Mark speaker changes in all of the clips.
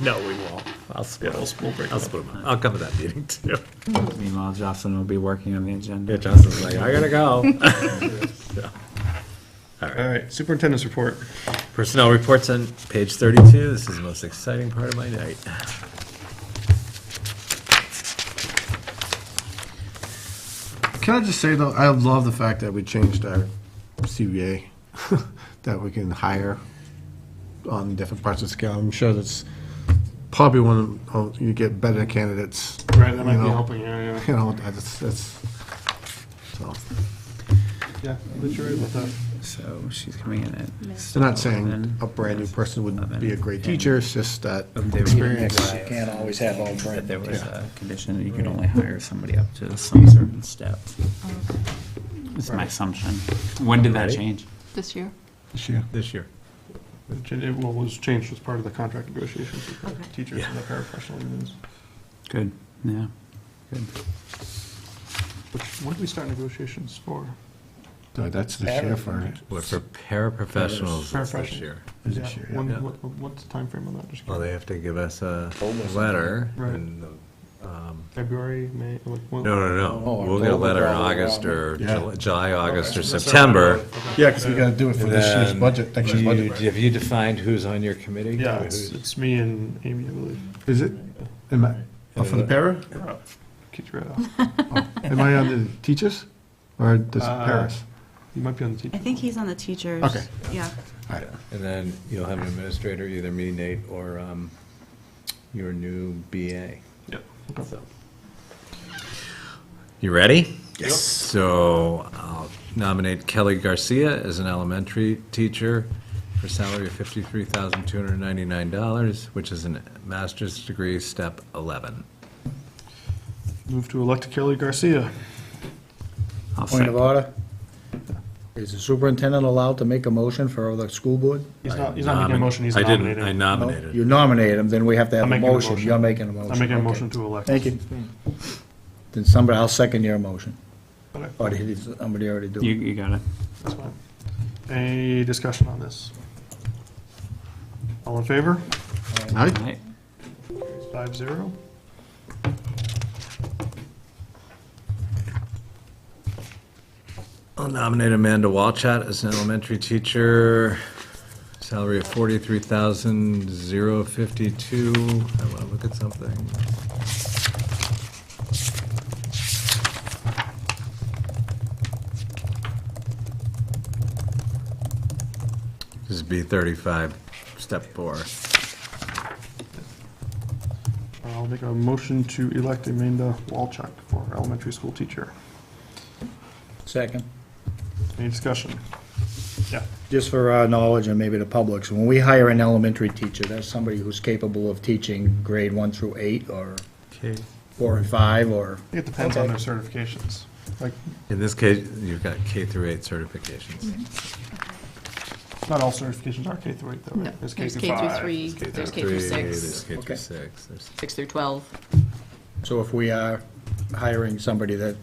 Speaker 1: No, we won't.
Speaker 2: I'll split,
Speaker 1: We'll, we'll break it
Speaker 2: I'll
Speaker 1: up.
Speaker 2: split them up. I'll come to that meeting too.
Speaker 3: Meanwhile, Jocelyn will be working on the agenda.
Speaker 2: Yeah, Justin's like, I gotta go.
Speaker 1: All right, superintendent's report.
Speaker 2: Personnel reports on page thirty-two. This is the most exciting part of my night.
Speaker 4: Can I just say though, I love the fact that we changed our CBA, that we can hire on different parts of the scale. I'm sure that's probably one of, oh, you get better candidates.
Speaker 1: Right,
Speaker 4: that might be You know. helping,
Speaker 1: yeah,
Speaker 4: You know, that's, that's, so,
Speaker 1: Yeah, that's true about that.
Speaker 3: So she's coming in at.
Speaker 4: I'm not saying a brand-new person would be a great teacher, it's just that experience. You can't always have all
Speaker 3: That
Speaker 4: brand.
Speaker 3: there was a condition that you could only hire somebody up to some certain step. It's my assumption. When did that
Speaker 2: Right.
Speaker 3: change?
Speaker 5: this year.
Speaker 4: Sure.
Speaker 2: This year.
Speaker 1: It was changed as part of the contract negotiations with
Speaker 5: Okay.
Speaker 1: the teachers and the paraprofessional unions.
Speaker 3: Good, yeah. Good.
Speaker 1: Which, when did we start negotiations for?
Speaker 4: That's the sheriff, all right.
Speaker 2: But for paraprofessionals, it's this
Speaker 1: Paraprofessional.
Speaker 2: year.
Speaker 4: Is it
Speaker 1: Yeah,
Speaker 4: sure?
Speaker 1: when-
Speaker 2: Yeah.
Speaker 1: what- What's the timeframe on that? Just
Speaker 2: Well, they have to give us a letter
Speaker 1: Right.
Speaker 2: and, um,
Speaker 1: February, May? like, when-
Speaker 2: no, no, no. We'll get a letter in August or
Speaker 4: Oh, Yeah. Oh,
Speaker 2: Jul- July, August or
Speaker 1: Okay.
Speaker 2: September.
Speaker 4: Yeah, because we gotta do it for this year's
Speaker 2: Then
Speaker 4: budget, next year's
Speaker 2: you-
Speaker 4: budget.
Speaker 2: Have you defined who's on your committee?
Speaker 1: Yeah, it's, it's me and Amy, I believe.
Speaker 4: Is it? Am I, oh, for the para?
Speaker 1: You're up. Kicked you right off.
Speaker 4: Am I on the teachers or does
Speaker 1: Uh,
Speaker 4: Paris?
Speaker 1: You might be on the teacher.
Speaker 5: I think he's on the teachers.
Speaker 4: Okay.
Speaker 5: Yeah.
Speaker 4: All right.
Speaker 2: And then you'll have an administrator, either me, Nate, or um, your new BA.
Speaker 1: Yep. Okay.
Speaker 2: You ready? Yes. So I'll nominate Kelly Garcia as an elementary teacher for salary of $53,299, which is a master's degree, step 11.
Speaker 1: Move to elect Kelly Garcia.
Speaker 3: I'll
Speaker 6: Point
Speaker 3: second.
Speaker 6: of order. Is the superintendent allowed to make a motion for the school board?
Speaker 1: He's not, he's not making a motion, he's
Speaker 2: I didn't, I
Speaker 1: nominating.
Speaker 6: No?
Speaker 2: nominated.
Speaker 6: You nominate him, then we have to
Speaker 1: I'm
Speaker 6: have a
Speaker 1: making a
Speaker 6: motion.
Speaker 1: motion.
Speaker 6: You're making a motion.
Speaker 1: I'm making a
Speaker 6: Okay.
Speaker 1: motion to elect.
Speaker 6: Thank you. Then somebody, I'll second your motion.
Speaker 1: Okay,
Speaker 6: Or did somebody already do
Speaker 3: You,
Speaker 6: it?
Speaker 3: you got it.
Speaker 1: that's fine. Any discussion on this? All in favor?
Speaker 4: Aye.
Speaker 3: All right.
Speaker 1: Five zero.
Speaker 2: I'll nominate Amanda Walchat as an elementary teacher, salary of forty-three thousand zero fifty-two. I want to look at something. This is B thirty-five, step four.
Speaker 1: I'll make a motion to elect Amanda Walchuk for elementary school teacher.
Speaker 6: Second.
Speaker 1: Any discussion? Yeah.
Speaker 6: Just for our knowledge and maybe the public's, when we hire an elementary teacher, that's somebody who's capable of teaching grade one through eight or
Speaker 2: Okay.
Speaker 6: four and five or,
Speaker 1: I think it depends on their certifications. Like,
Speaker 2: In this case, you've got K through eight certifications.
Speaker 1: not all certifications are K through eight, though,
Speaker 7: No,
Speaker 1: right? K
Speaker 7: there's K through
Speaker 1: five,
Speaker 7: three,
Speaker 1: K
Speaker 7: there's
Speaker 1: through-
Speaker 7: K through
Speaker 2: Three,
Speaker 7: six.
Speaker 2: There's K through
Speaker 6: Okay.
Speaker 2: six. There's-
Speaker 7: 6 through 12.
Speaker 6: so if we are hiring somebody that,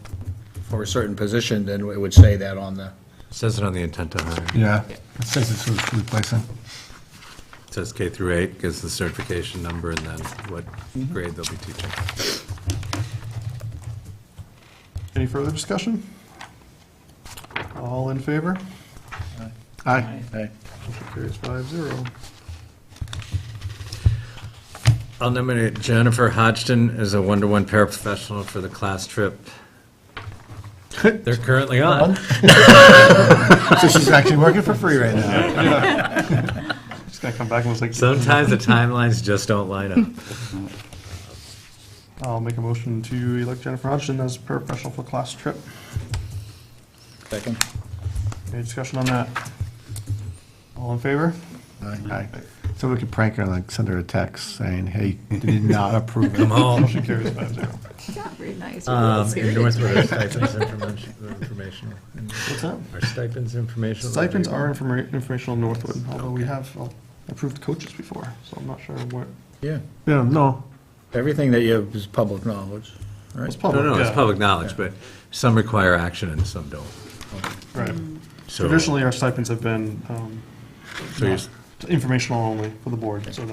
Speaker 6: for a certain position, then it would say that on the,
Speaker 2: Says it on the intent to hire.
Speaker 4: Yeah, it says it's who's replacing.
Speaker 2: Says K through eight, gives the certification number, and then what
Speaker 1: Mm-hmm.
Speaker 2: grade they'll be teaching.
Speaker 1: Any further discussion? All in favor?
Speaker 4: Aye.
Speaker 6: Aye.
Speaker 1: Motion carries five zero.
Speaker 2: I'll nominate Jennifer Hodgson as a one-to-one paraprofessional for the class trip. They're currently on.
Speaker 4: So she's actually working for free right now.
Speaker 1: She's gonna come back and was like,
Speaker 2: Sometimes the timelines just don't line up.
Speaker 1: I'll make a motion to elect Jennifer Hodgson as paraprofessional for class trip.
Speaker 6: second.
Speaker 1: Any discussion on that? All in favor?
Speaker 4: Aye. So we could prank her, like, send her a text saying, hey, did not approve it.
Speaker 2: Come home.
Speaker 1: Motion carries five zero.
Speaker 7: Not very nice.
Speaker 2: Um, endorse with our stipends informa- informational.
Speaker 1: What's that?
Speaker 2: Are stipends informational?
Speaker 1: Stipends are informa- informational in Northwood, although we have uh, approved coaches before, so I'm not sure what,
Speaker 6: Yeah,
Speaker 4: Yeah, no,
Speaker 6: everything that you have is public knowledge,
Speaker 1: it's
Speaker 6: right?
Speaker 1: public.
Speaker 2: No, no, it's
Speaker 1: yeah.
Speaker 2: public knowledge, but some require action and some don't.
Speaker 1: Right.
Speaker 2: So,
Speaker 1: Traditionally, our stipends have been, um,
Speaker 2: so your
Speaker 1: not- informational only for the board, so that